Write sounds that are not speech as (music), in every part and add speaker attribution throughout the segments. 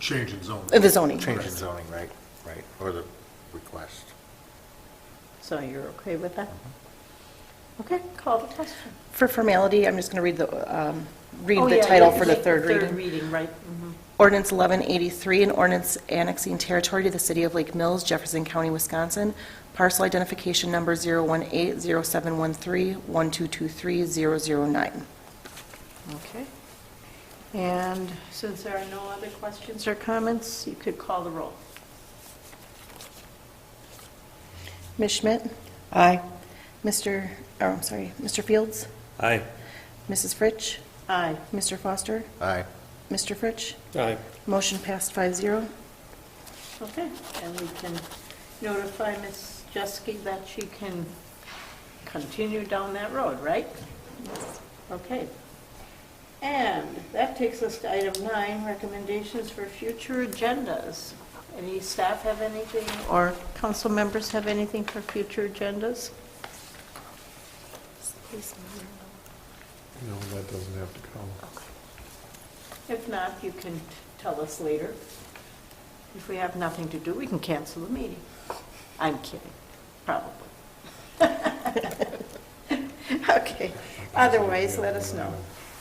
Speaker 1: Change in zone.
Speaker 2: Uh, the zoning.
Speaker 1: Change in zoning, right, right, or the request.
Speaker 3: So you're okay with that? Okay, call the question.
Speaker 2: For formality, I'm just going to read the, um, read
Speaker 3: Oh,
Speaker 2: the
Speaker 3: yeah,
Speaker 2: title
Speaker 3: yeah,
Speaker 2: for the
Speaker 3: take
Speaker 2: third
Speaker 3: Third
Speaker 2: reading.
Speaker 3: reading, right. mhm.
Speaker 2: Ordinance 1183, an ordinance annexing territory to the city of Lake Mills, Jefferson County, Wisconsin, parcel identification number 018071312230009.
Speaker 3: Okay. And since there are no other questions or comments, you could call the roll.
Speaker 2: Ms. Schmidt? Aye. Mr., oh, I'm sorry, Mr. Fields?
Speaker 4: Aye.
Speaker 2: Mrs. Fritsch?
Speaker 3: Aye.
Speaker 2: Mr. Foster?
Speaker 1: Aye.
Speaker 2: Mr. Fritsch?
Speaker 4: Aye.
Speaker 2: Motion passed 5-0.
Speaker 3: Okay, and we can notify Ms. Jeske that she can continue down that road, right? Okay. And that takes us to item nine, recommendations for future agendas. Any staff have anything, or council members have anything for future agendas?
Speaker 5: No, that doesn't have to come.
Speaker 3: If not, you can tell us later. If we have nothing to do, we can cancel the meeting. I'm kidding, probably. (laughs) Okay, otherwise, let us know.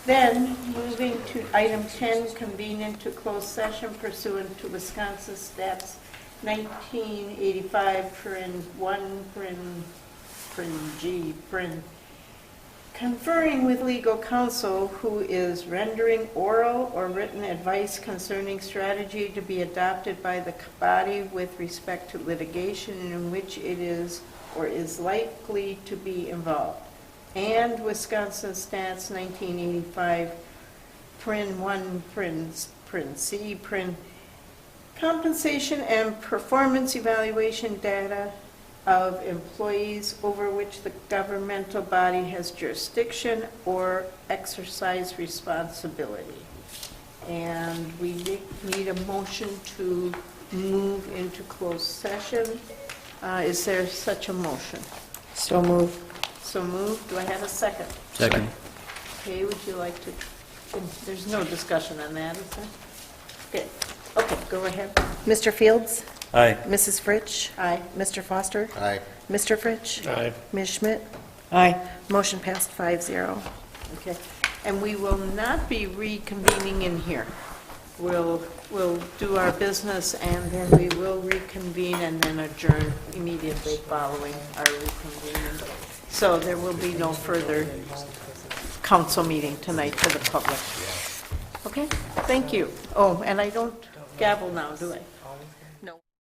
Speaker 3: Then, moving to item 10, convene into closed session pursuant to Wisconsin Stats 1985, print 1, print, print G, print Conferring with legal counsel who is rendering oral or written advice concerning strategy to be adopted by the body with respect to litigation in which it is or is likely to be involved. And Wisconsin Stats 1985, Prin 1, Prin, Prin C, Prin Compensation and performance evaluation data of employees over which the governmental body has jurisdiction or exercise responsibility. And we ne- need a motion to move into closed session. Uh, Is there such a motion?
Speaker 2: So moved.
Speaker 3: So moved, do I have a second?
Speaker 4: Second.
Speaker 3: Okay, would you like to, there's no discussion on that, is there? Okay, okay, go ahead.
Speaker 2: Mr. Fields?
Speaker 4: Aye.
Speaker 2: Mrs. Fritsch?
Speaker 3: Aye.
Speaker 2: Mr. Foster?
Speaker 1: Aye.
Speaker 2: Mr. Fritsch?
Speaker 4: Aye.
Speaker 2: Ms. Schmidt? Aye. Motion passed 5-0.
Speaker 3: Okay, and we will not be reconvening in here. We'll, we'll do our business, and then we will reconvene and then adjourn immediately following our reconvening. So there will be no further council meeting tonight for the public. Okay, thank you. Oh, and I don't gavel now, do I?
Speaker 2: No.